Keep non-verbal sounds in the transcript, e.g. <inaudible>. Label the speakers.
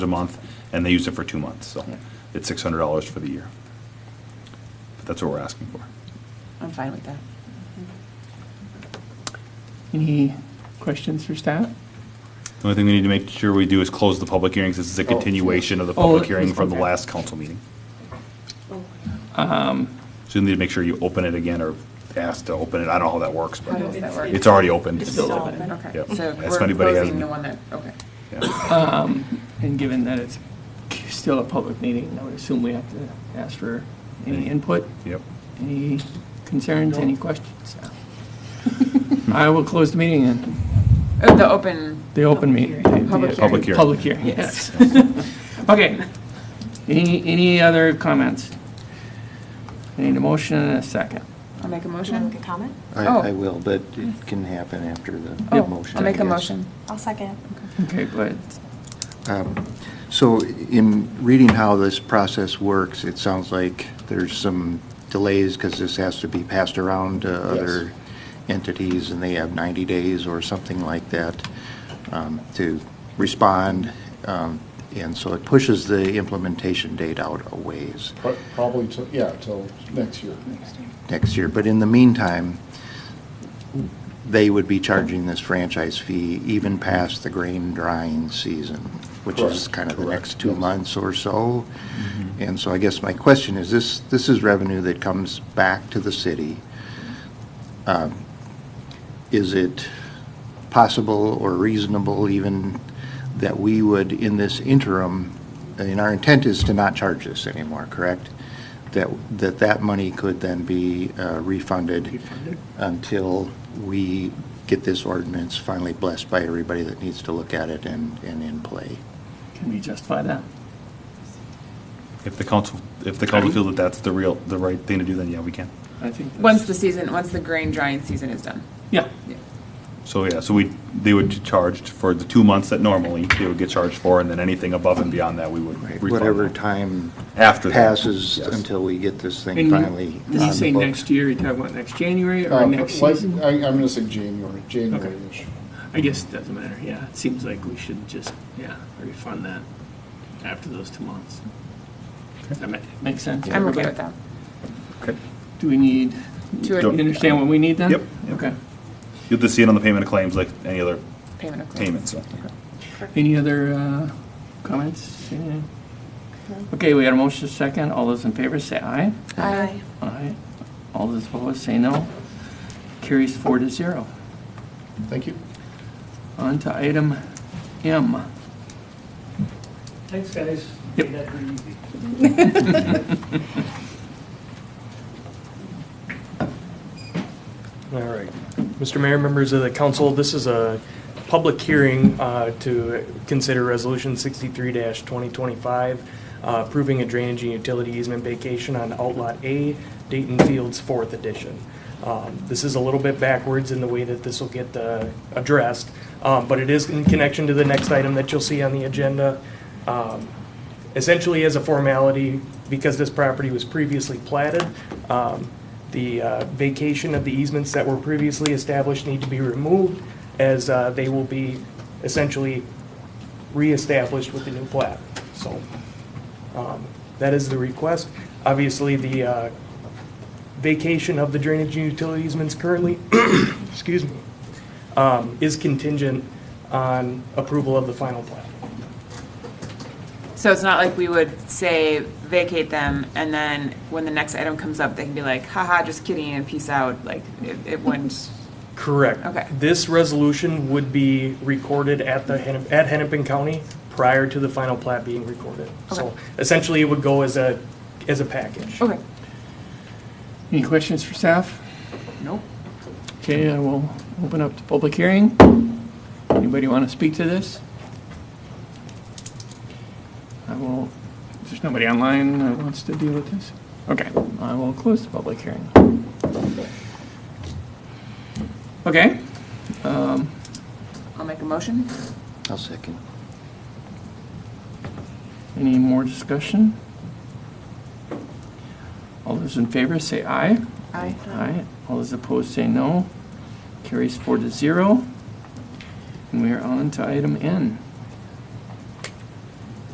Speaker 1: a month, and they used it for two months, so
Speaker 2: Yeah.
Speaker 1: it's six hundred dollars for the year. But that's what we're asking for.
Speaker 2: I'm fine with that.
Speaker 3: Any questions for staff?
Speaker 1: The only thing we need to make sure we do is close the public hearing, 'cause this is a
Speaker 2: Oh.
Speaker 1: continuation of the
Speaker 3: Oh,
Speaker 1: public
Speaker 3: it
Speaker 1: hearing
Speaker 3: was-
Speaker 1: from the
Speaker 3: okay.
Speaker 1: last council meeting. So you need to make sure you open it again, or ask to open it, I don't know how that works,
Speaker 2: How does
Speaker 1: but
Speaker 2: that work?
Speaker 1: it's already opened.
Speaker 2: It's
Speaker 3: still
Speaker 2: still
Speaker 3: open.
Speaker 2: open, okay.
Speaker 1: Yep.
Speaker 2: So
Speaker 1: If
Speaker 2: we're
Speaker 1: anybody has
Speaker 2: closing
Speaker 1: any-
Speaker 2: the one that, okay.
Speaker 1: Yeah.
Speaker 3: And given that it's still a public meeting, I would assume we have to ask for any input,
Speaker 1: Yep.
Speaker 3: any concerns, any questions? <laughs> I will close the meeting and
Speaker 2: Oh, the open,
Speaker 3: the open meeting. the- the-
Speaker 2: Public
Speaker 1: Public hearing.
Speaker 3: Public hearing, yes. <laughs> Okay. Any, any other comments? I Need a motion and a second.
Speaker 2: I'll make a
Speaker 4: Can I make
Speaker 2: motion.
Speaker 4: a comment?
Speaker 2: Oh.
Speaker 5: I, I will, but it can happen after the
Speaker 2: Oh,
Speaker 5: motion.
Speaker 2: I'll make
Speaker 5: I
Speaker 2: a
Speaker 5: guess.
Speaker 2: motion.
Speaker 4: I'll second.
Speaker 3: Okay, but
Speaker 5: Um, So in reading how this process works, it sounds like there's some delays because this has to be passed around to other entities and they have 90 days or something like that um, to respond. Um, And so it pushes the implementation date out a ways.
Speaker 6: Pro- Probably till, yeah, till next year.
Speaker 5: next year. But in the meantime, they would be charging this franchise fee even past the grain drying season, which is
Speaker 6: Correct,
Speaker 5: kind of the
Speaker 6: correct,
Speaker 5: next two
Speaker 6: yes. Mm-hmm.
Speaker 5: months or so. And so I guess my question is, this, this is revenue that comes back to the city. Um, Is it possible or reasonable even that we would, in this interim, and our intent is to not charge this anymore, correct? That, that that money could then be uh, refunded until we get this ordinance finally blessed by everybody that needs to look at it and, and in play.
Speaker 3: can we justify that?
Speaker 1: If the council, if the council feel that that's the real, the right thing to do, then yeah, we can.
Speaker 3: I think. that's-
Speaker 2: Once the season, once the grain drying season is done.
Speaker 3: Yeah,
Speaker 1: So, yeah, so we, they would get charged for the two months that normally they would get charged for, and then anything above and beyond that, we would refund.
Speaker 5: Whatever
Speaker 1: them.
Speaker 5: time
Speaker 1: After that,
Speaker 5: passes
Speaker 1: yes.
Speaker 5: until we get this
Speaker 3: And
Speaker 5: thing
Speaker 3: you-
Speaker 5: finally on the
Speaker 3: Did you say
Speaker 5: books.
Speaker 3: next year, you talking about next January or
Speaker 6: Uh,
Speaker 3: next
Speaker 6: like-
Speaker 3: season?
Speaker 6: I, I'm gonna say January, January-ish.
Speaker 7: I guess it doesn't matter, yeah. It seems like we should just, yeah, refund that after those two months. I mean,
Speaker 3: Makes sense.
Speaker 2: I'm okay with that.
Speaker 1: Okay.
Speaker 3: Do we need,
Speaker 2: To
Speaker 3: you
Speaker 2: a
Speaker 3: understand what we need then?
Speaker 1: Yep.
Speaker 3: Okay.
Speaker 1: You'll just see it on the payment of claims like any other
Speaker 2: payment of claims.
Speaker 1: payment, so.
Speaker 3: Any other uh, comments? Anything? Okay, we had a motion second. All those in favor say aye.
Speaker 2: Aye.
Speaker 3: Aye. All those opposed say no. Carries four to zero.
Speaker 6: Thank you.
Speaker 3: On to item M.
Speaker 8: Thanks, guys.
Speaker 3: Yep.
Speaker 8: Made that pretty easy. <laughs> All right. Mr. Mayor, members of the council, this is a public hearing uh, to consider Resolution 63-2025, uh, approving a drainage and utility easement vacation on Outlot A, Dayton Fields, 4th Edition. Um, This is a little bit backwards in the way that this will get uh, addressed, um, but it is in connection to the next item that you'll see on the agenda. Um, essentially as a formality, because this property was previously platted, um, the uh, vacation of the easements that were previously established need to be removed, as uh, they will be essentially reestablished with the new plat. So um, that is the request. Obviously, the uh, vacation of the drainage and utility easements currently, <coughs> excuse me, um, is contingent on approval of the final plat.
Speaker 2: So it's not like we would say vacate them and then when the next item comes up, they can be like, haha, just kidding and peace out. Like it, it wouldn't.
Speaker 7: Correct.
Speaker 2: Okay.
Speaker 7: This resolution would be recorded at the, Hennep- at Hennepin County prior to the final plat being recorded. So
Speaker 2: Okay.
Speaker 7: essentially, it would go as a, as a package.
Speaker 2: Okay.
Speaker 3: Any questions for staff?
Speaker 2: Nope.
Speaker 3: Okay, I will open up the public hearing. Anybody want to speak to this? I will, if there's nobody online that wants to deal with this, okay, I will close the public hearing. Okay,
Speaker 2: I'll make a motion.
Speaker 5: I'll second.
Speaker 3: any more discussion? All those in favor say aye.
Speaker 2: Aye.
Speaker 3: Aye. All those opposed say no. Carries four to zero. And we are on to item N.